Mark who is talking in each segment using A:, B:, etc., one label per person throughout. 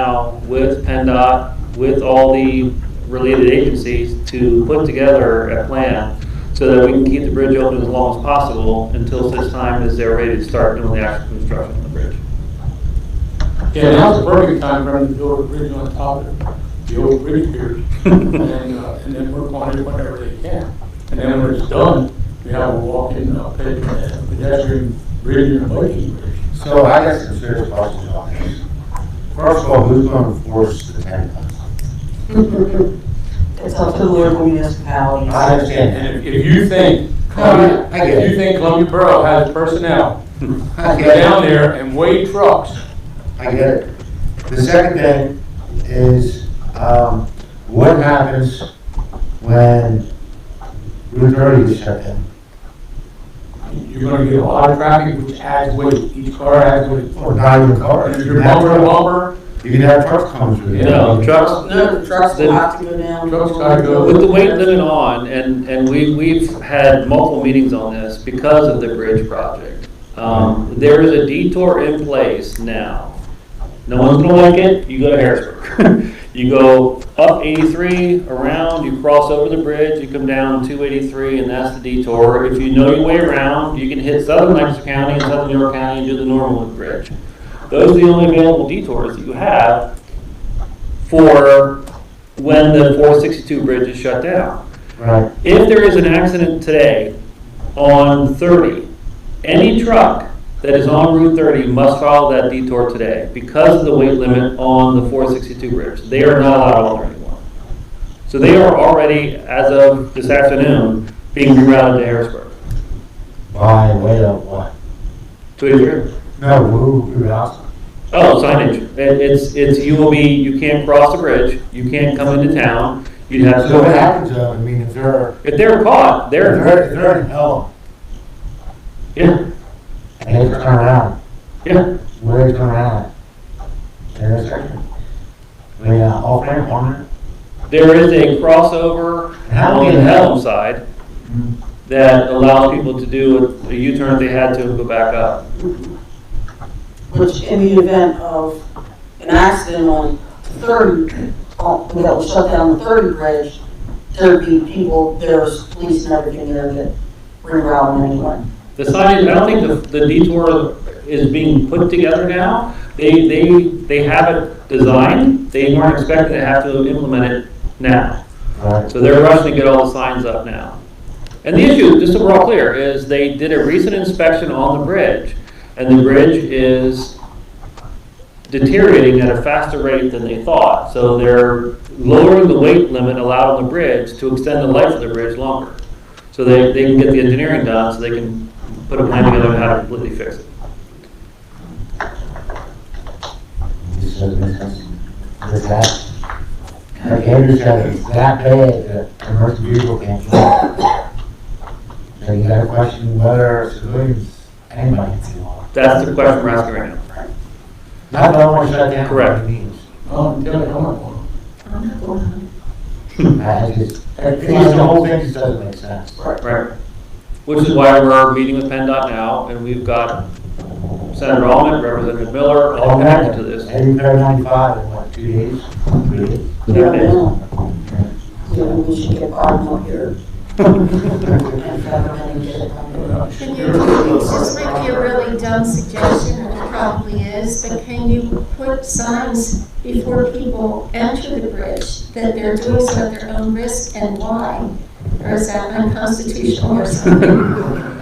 A: now with PennDOT, with all the related agencies to put together a plan so that we can keep the bridge open as long as possible until such time as they're ready to start doing the actual construction of the bridge.
B: Yeah, now's the perfect time for them to build a bridge on top of it, the old bridge pier, and, uh, and then work on it whenever they can. And then when it's done, we have a walk-in, uh, ped- uh, pedestrian bridge and a biking bridge.
C: So I got some serious questions on this. First of all, who's gonna enforce the ten tons?
D: It's up to the local municipalities.
C: I understand
B: And if, if you think,
C: Oh, yeah, I get it.
B: if you think Columbia Borough has personnel,
C: that. I
B: go
C: get it.
B: down there and weigh trucks,
C: I get it. The second thing is, um, what happens when Route thirty is shut down?
B: you're gonna get a lot of traffic, which adds weight, each car adds weight.
C: Or not even
B: And
C: cars?
B: if
C: You
B: you're
C: can have
B: bumper to
C: trucks-
B: bumper,
C: you can have trucks coming through there.
A: No, trucks,
D: No, the trucks will have to go down.
B: Trucks gotta go.
A: With the weight limit on, and, and we, we've had multiple meetings on this because of the bridge project. Um, there is a detour in place now. No one's gonna like it, you go to Harrisburg. You go up eighty-three, around, you cross over the bridge, you come down two eighty-three, and that's the detour. If you know your way around, you can hit southern Lancaster County and southern York County and do the Norwood Bridge. Those are the only available detours that you have for when the 462 bridge is shut down.
C: Right,
A: If there is an accident today on 30, any truck that is on Route 30 must follow that detour today because of the weight limit on the 462 bridge. They are not allowed on there anymore. So they are already, as of this afternoon, being rerouted to Harrisburg,
C: by way of what?
A: to Adrian.
C: No, who, who else?
A: Oh, signage. It- It's, it's, you will be, you can't cross the bridge, you can't come into town, you'd have to
C: So
A: go
C: what
A: back.
C: happens to them? I mean, if they're,
A: If they're caught,
C: if
A: they're,
C: they're, if they're in hell,
A: yeah,
C: and they turn around,
A: yeah.
C: Where they come out? There's a, we, uh, off ramp, on ramp.
A: There is a crossover
C: How
A: on
C: many
A: the
C: of
A: Helm
C: those?
A: side that allows people to do a U-turn if they had to and go back up.
D: Which in the event of an accident on thirty, on- that will shut down the thirty bridge, there'd be people, there's police and everything there that reroute them anyway.
A: The signage, I don't think the the detour is being put together now. They, they, they have it designed, they weren't expecting to have to implement it now.
C: Right.
A: So they're rushing to get all the signs up now. And the issue, just so we're all clear, is they did a recent inspection on the bridge, and the bridge is deteriorating at a faster rate than they thought. So they're lowering the weight limit allowed on the bridge to extend the life of the bridge longer. So they, they can get the engineering done, so they can put a plan together on how to completely fix it.
C: This is, this is, this is that. Like Andrew said, it's that bad that commercial vehicle can't drive. So you gotta question whether civilians, anybody can see law.
A: That's the question we're asking right now.
C: Not that I want to shut down.
A: Correct.
C: what it means.
B: um, tell me how much one.
C: I just, it's the whole thing just doesn't make sense.
A: Right. Which is why we're meeting with PennDOT now, and we've got Senator Almond, Representative Miller, all connected to this.
C: Every third ninety-five in what, two days? Three days?
A: There it is.
D: Yeah, we should get Bob up here. And have him get it done.
E: Can you, this might be a really dumb suggestion, and it probably is, but can you put signs before people enter the bridge that they're doing so at their own risk and why? Or is that unconstitutional or something?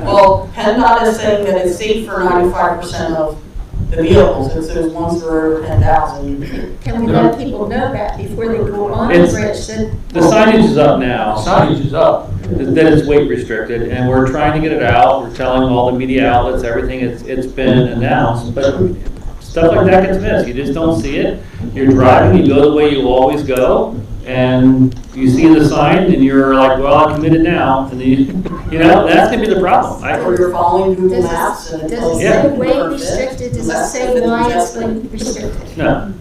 D: Well, PennDOT is saying that it's safe for ninety-five percent of the vehicles, it's those ones that are over ten thousand.
E: Can we let people know that before they go on the
A: It's-
E: bridge, that
A: The signage is up now,
B: Signage is up.
A: that it's weight restricted, and we're trying to get it out, we're telling all the media outlets, everything, it's, it's been announced, but stuff like that gets missed, you just don't see it, you're driving, you go the way you always go, and you see the sign, and you're like, well, I'm committed now, and then, you you know, that's gonna be the problem. I-
D: Or you're following Google
E: does
D: Maps
E: it,
D: and
E: does it
D: it's.
A: Yeah.
E: say weight restricted, does it say why it's weight restricted?
A: No,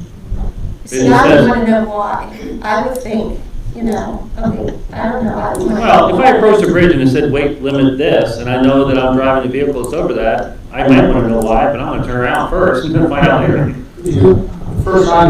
E: See, I would want to know why, I would think, you know, I mean, I don't know, I would. wanna-
A: well, if I approached a bridge and it said, weight limit this, and I know that I'm driving a vehicle that's over that, I might wanna know why, but I'm gonna turn around first and find out later.
B: First sign